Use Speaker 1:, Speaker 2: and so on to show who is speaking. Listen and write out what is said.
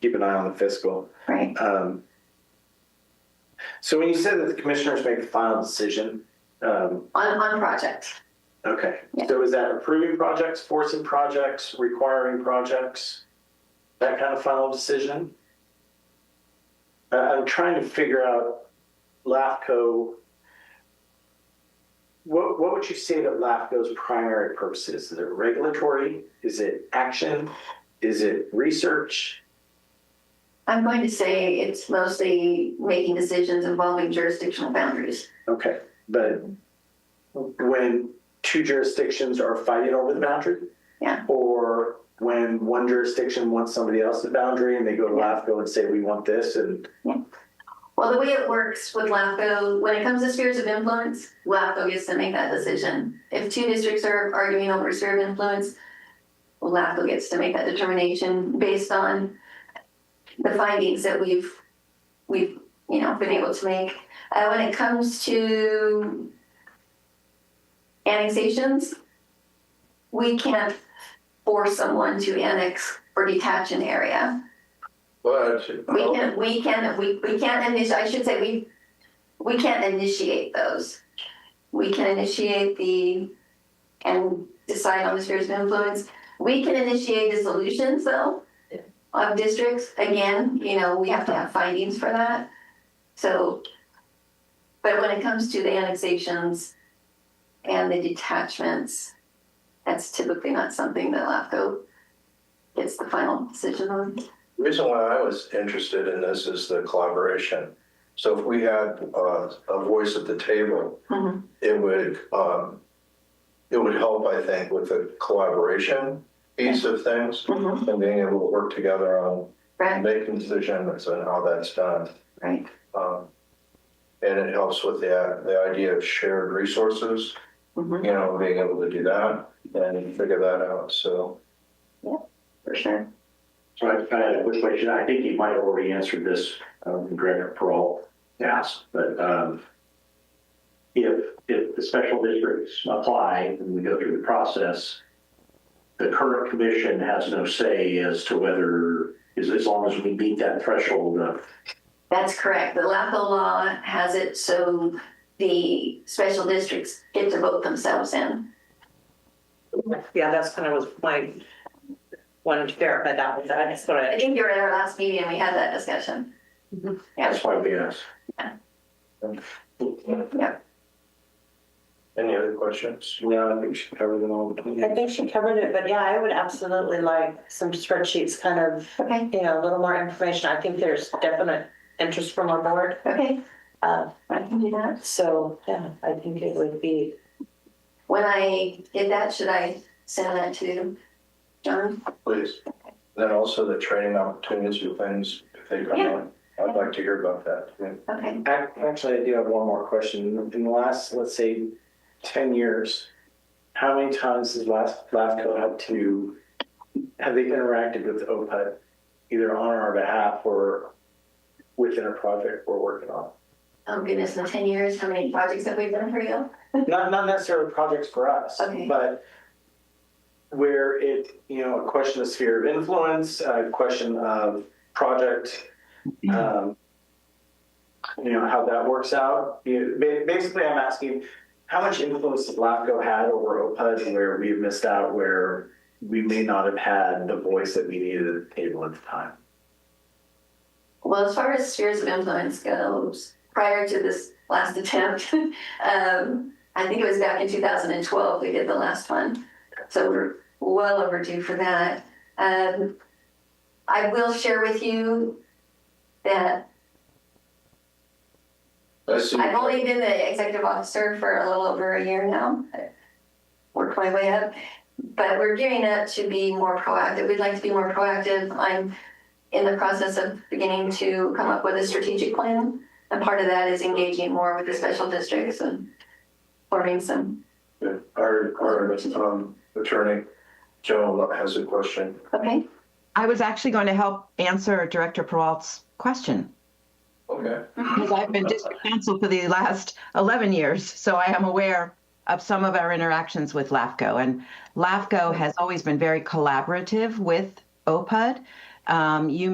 Speaker 1: keep an eye on the fiscal.
Speaker 2: right?
Speaker 1: Um, So when you said that the commissioners make the final decision, um,
Speaker 2: On, on projects.
Speaker 1: okay.
Speaker 2: Yeah.
Speaker 1: So is that approving projects, forcing projects, requiring projects? That kind of final decision? I- I'm trying to figure out LAFCO. What, what would you say that LAFCO's primary purpose is? Is it regulatory? Is it action? Is it research?
Speaker 2: I'm going to say it's mostly making decisions involving jurisdictional boundaries.
Speaker 1: Okay, but when two jurisdictions are fighting over the boundary?
Speaker 2: Yeah.
Speaker 1: Or when one jurisdiction wants somebody else's boundary and they go to
Speaker 2: Yeah.
Speaker 1: LAFCO and say, we want this and,
Speaker 2: Well, the way it works with LAFCO, when it comes to spheres of influence, LAFCO gets to make that decision. If two districts are arguing over a sphere of influence, LAFCO gets to make that determination based on the findings that we've, we've, you know, been able to make. Uh, when it comes to annexations, we can't force someone to annex or detach an area.
Speaker 3: But
Speaker 2: We
Speaker 1: Oh.
Speaker 2: can, we can, we, we can't initiate, I should say, we, we can't initiate those. We can initiate the, and decide on the spheres of influence. We can initiate the solutions though, of districts, again, you know, we have to have findings for that. So, but when it comes to the annexations and the detachments, that's typically not something that LAFCO gets the final decision on.
Speaker 3: the reason why I was interested in this is the collaboration. So if we had uh, a voice at the table,
Speaker 2: Mhm.
Speaker 3: it would, um, it would help, I think, with the collaboration piece of things
Speaker 2: Mhm.
Speaker 3: and being able to work together on
Speaker 2: Right,
Speaker 3: making decisions and how that's done.
Speaker 2: right,
Speaker 3: Um, And it helps with the, the idea of shared resources,
Speaker 2: Mhm.
Speaker 3: you know, being able to do that and figure that out, so.
Speaker 2: for sure.
Speaker 4: So I I had a quick question. I think you might have already answered this, um, Director Peralta asked, but, um, if, if the special districts apply and we go through the process, the current commission has no say as to whether, as, as long as we meet that threshold of,
Speaker 2: That's correct. The LAFCO law has it so the special districts get to vote themselves in.
Speaker 5: Yeah, that's kind of was my, wanted to share, but that was, that's what
Speaker 2: I
Speaker 5: I,
Speaker 2: think you were at our last meeting and we had that discussion.
Speaker 4: that's why we asked.
Speaker 2: Yeah,
Speaker 3: Any other questions?
Speaker 1: yeah, I think she covered them all.
Speaker 5: I think she covered it, but yeah, I would absolutely like some spreadsheets, kind of,
Speaker 2: okay,
Speaker 5: you know, a little more information. I think there's definite interest from our board.
Speaker 2: okay,
Speaker 5: Uh,
Speaker 2: I can do that.
Speaker 5: so, yeah, I think it would be,
Speaker 2: When I did that, should I send that to John?
Speaker 3: Please. Then also the training opportunities for things, if they come
Speaker 2: Yeah.
Speaker 3: on. I'd like to hear about that. too.
Speaker 2: Okay,
Speaker 1: Ac- Actually, I do have one more question. In the last, let's say, ten years, how many times has last LAFCO had to, have they interacted with OPUD either on our behalf or within a project we're working on?
Speaker 2: oh goodness, in ten years, how many projects have we done for you?
Speaker 1: not not necessarily projects for us,
Speaker 2: Okay.
Speaker 1: but where it you know a question of sphere of influence, a question of project, um, you know how that works out. You, ba- basically, I'm asking how much influence has LAFCO had over OPUD, where we've missed out, where we may not have had the voice that we needed at the table at the time.
Speaker 2: Well, as far as spheres of influence goes, prior to this last attempt, um, I think it was back in 2012 we did the last one. So we're well overdue for that. Um, I will share with you that
Speaker 3: I see.
Speaker 2: I've only been the executive officer for a little over a year now. I Worked my way up, but we're gearing up to be more proactive. We'd like to be more proactive. I'm in the process of beginning to come up with a strategic plan. And part of that is engaging more with the special districts and forming some,
Speaker 3: Our, our um, attorney, Joe, has a question.
Speaker 2: okay?
Speaker 6: I was actually going to help answer Director Peralt's question
Speaker 3: Okay.
Speaker 6: because I've been district council for the last 11 years, so I am aware of some of our interactions with LAFCO. And LAFCO has always been very collaborative with OPUD. Um, you